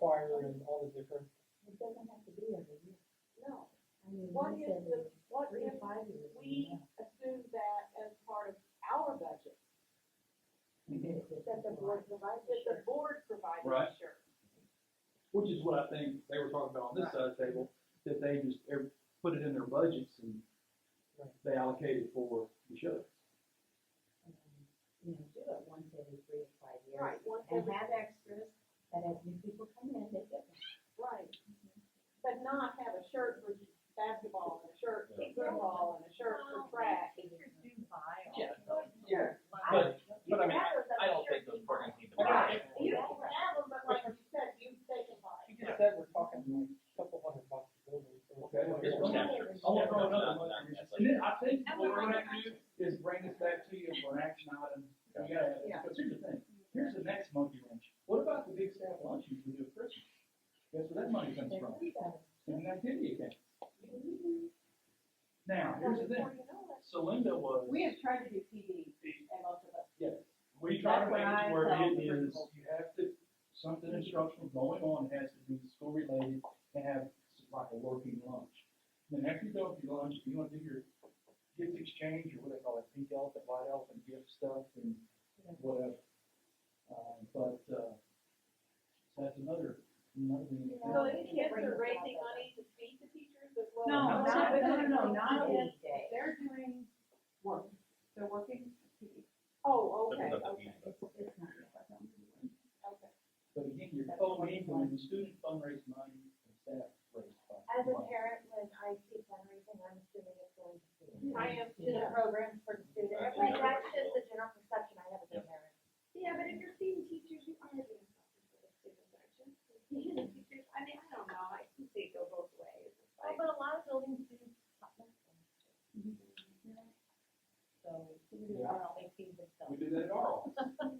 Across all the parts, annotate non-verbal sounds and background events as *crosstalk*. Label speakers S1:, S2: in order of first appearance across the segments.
S1: choir and all the different,
S2: It doesn't have to be every year.
S3: No,
S2: I mean,
S3: what
S2: we
S3: if
S2: Mm, said
S3: the,
S2: uh,
S3: what
S2: three
S3: if
S2: to five years.
S3: we assume that as part of our budget?
S2: That the board provides
S3: That the board provides
S4: Right.
S3: insurance?
S4: Which is what I think they were talking about on this side of the table, that they just, every- put it in their budgets and
S1: Right.
S4: they allocate it for the shows.
S2: um, You know, do it once every three to five years.
S3: Right, once
S2: And
S3: every,
S2: have extras that as new people come in, they get one.
S3: right. But not have a shirt for basketball and a shirt for football and a shirt for track.
S5: Teachers do buy all
S6: Yeah.
S5: those.
S1: Yeah.
S5: Like,
S4: But,
S6: But I mean,
S3: That was a
S6: I don't
S3: shirt
S6: think those programs need to. be-
S3: Right, you
S6: Yeah.
S3: can have them, but like you said, you take them by.
S1: you just said we're talking like a couple hundred bucks a building. so-
S4: Okay.
S6: It's for chapters.
S4: I wanna throw
S6: Yeah,
S4: another
S6: not-
S4: one.
S6: not- that's like-
S4: and then I think
S3: And we
S4: what we're
S3: might
S4: gonna do is bring this back to you for an action item. You gotta,
S3: Yeah.
S4: because here's the thing, here's the next monkey wrench. What about the big staff lunches we do at Christmas? Guess where that money comes
S2: They're
S4: from?
S2: free though.
S4: In an activity account. Now, here's the thing,
S3: Before you know it.
S4: Celinda was.
S5: We have tried to do PD and most of us.
S4: Yes, we try
S5: That's
S4: to
S5: what
S4: make it
S5: I
S4: to where
S5: tell
S4: it
S5: the
S4: is,
S5: principals.
S4: you have to, something instructional going on has to be school related and have like a working lunch. Then after you go with your lunch, if you wanna do your gift exchange or what they call it, pink elephant, white elephant gift stuff and whatever. Uh, but, uh, so that's another, another thing.
S2: Yeah.
S3: So the kids are raising money to feed the teachers as well?
S5: No,
S3: as-
S5: not- no, no, no, not
S2: Not any day.
S5: They're doing work, they're working PD.
S3: Oh,
S6: They're
S3: okay,
S6: not that
S3: okay,
S6: easy.
S2: It's, it's not.
S3: okay.
S4: But again, you're co-mingling the student fundraise money and staff raise money.
S7: As a parent, when I see fundraising, I'm assuming it's going to be
S3: I am,
S7: to the programs for the students.
S6: Right,
S7: Like,
S6: yeah.
S7: that's just the general perception I have as a parent.
S3: Yeah, but if you're feeding teachers, you are doing something for the students, aren't you? Feeding the teachers, I mean, I don't know, I can see it go both ways. It's
S7: Well,
S3: like-
S7: but a lot of buildings do. something.
S5: Mm-hmm.
S2: So, we are always seeing themselves.
S4: We do that at our
S7: *laughs*
S4: office.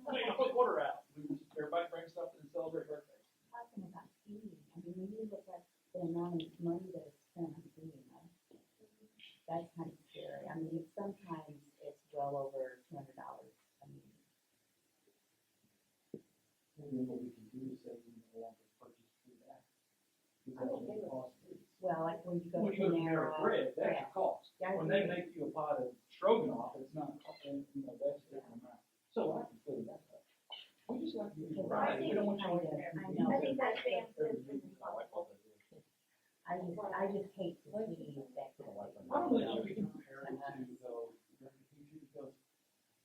S4: Hey, I put water out. We, everybody brings something and celebrate birthdays.
S2: talking about feeding, I mean, when you look at the amount of money that is spent on feeding them, that's kind of scary, I mean, sometimes it's well over two hundred dollars, I mean,
S4: And then what we can do is say we no longer purchase food out. Because that's what it costs.
S2: well, like when you go to
S4: When you go to
S2: Panera.
S4: Panera Bread, that's
S2: yeah.
S4: a cost.
S2: Yeah, I
S4: When they
S2: agree.
S4: make you a pot of stroganoff, it's not, you know, that's a different amount. So I can fill that up. We just like to use
S2: Because
S4: variety.
S2: I
S4: We don't want
S2: think
S4: you
S2: kind
S4: to
S2: of-
S4: have.
S2: I
S4: to
S2: know.
S4: use
S7: I think that's the answer
S4: every
S7: to the
S4: week.
S2: I just, I just hate to see that. kind of Uh-huh. thing.
S4: I don't think we can compare it to though, because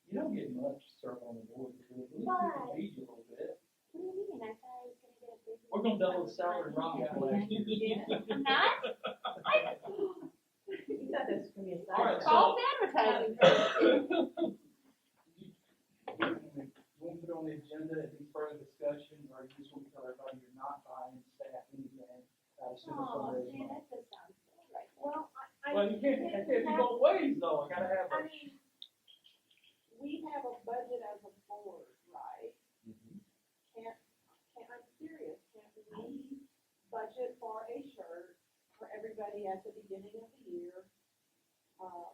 S4: you don't get much served on the board. At least we can
S7: But-
S4: feed you a little bit.
S7: What do you mean? I thought I was gonna get a big.
S4: We're gonna double the salary rock last year.
S7: Not?
S4: *laughs*
S2: *laughs* You thought this was gonna be a
S4: All right,
S2: side.
S4: so- False
S2: advertising.
S4: You want to put on the agenda, any further discussion, or you just want to tell everybody you're not buying staff anything? out of student
S3: Oh,
S4: fundraising
S3: man,
S4: money?
S3: that does sound cool, right? Well, I, I.
S4: Well, you can't, it can't be both ways though, I gotta have
S3: I
S4: a.
S3: mean, we have a budget as a board, right? Can't, can't, I'm serious, can't we budget for a shirt for everybody at the beginning of the year? Um,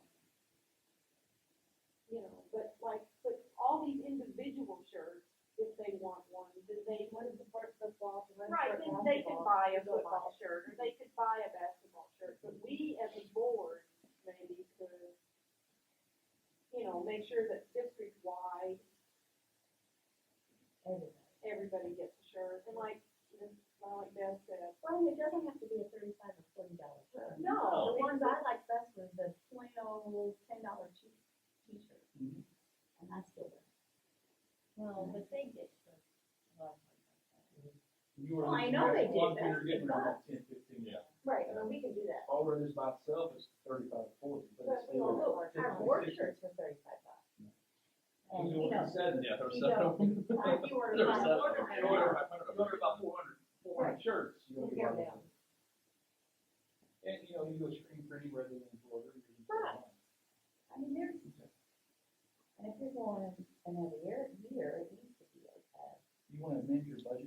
S3: You know, but like, but all these individual shirts, if they want one, then they.
S7: What is the part of the ball?
S3: Right, then they could buy a football shirt, or they could buy a basketball shirt, but we as a board maybe could, you know, make sure that district-wide, everybody gets a shirt, and like, Ms. Molly Beth said,
S7: Well, it doesn't have to be a thirty-five or forty dollar shirt.
S3: no,
S7: The ones I liked best was the plain old ten dollar cheap t-shirt.
S4: Mm-hmm.
S2: And I still, wear it.
S5: Well, but they get
S4: You were
S7: Well,
S4: looking
S7: I know
S4: at
S7: they
S4: the
S7: do,
S4: ones
S7: that's
S4: You're getting
S7: the
S4: around ten, fifteen.
S6: Yeah.
S7: Right, I mean, we can do that.
S4: All this by itself is thirty-five, forty, but it's
S3: But we
S4: still.
S3: all-
S7: Look, our board shirts were thirty-five bucks.
S2: and you know,
S4: Seven.
S6: Yeah, there was
S7: You
S6: several.
S7: If
S4: *laughs*
S7: you were
S6: There
S7: to
S6: was
S7: buy
S6: several.
S7: order,
S6: There were
S7: I know.
S6: about
S4: You
S6: 400
S4: order about four hundred, four hundred shirts. you know,
S7: Right.
S4: you're-
S7: Yeah.
S4: And, you know, you go screen printing rather than embroidery. you can-
S7: Right.
S2: I mean, there's, and if you're going another year, year, it needs to be okay.
S4: You wanna amend your budget
S7: *laughs*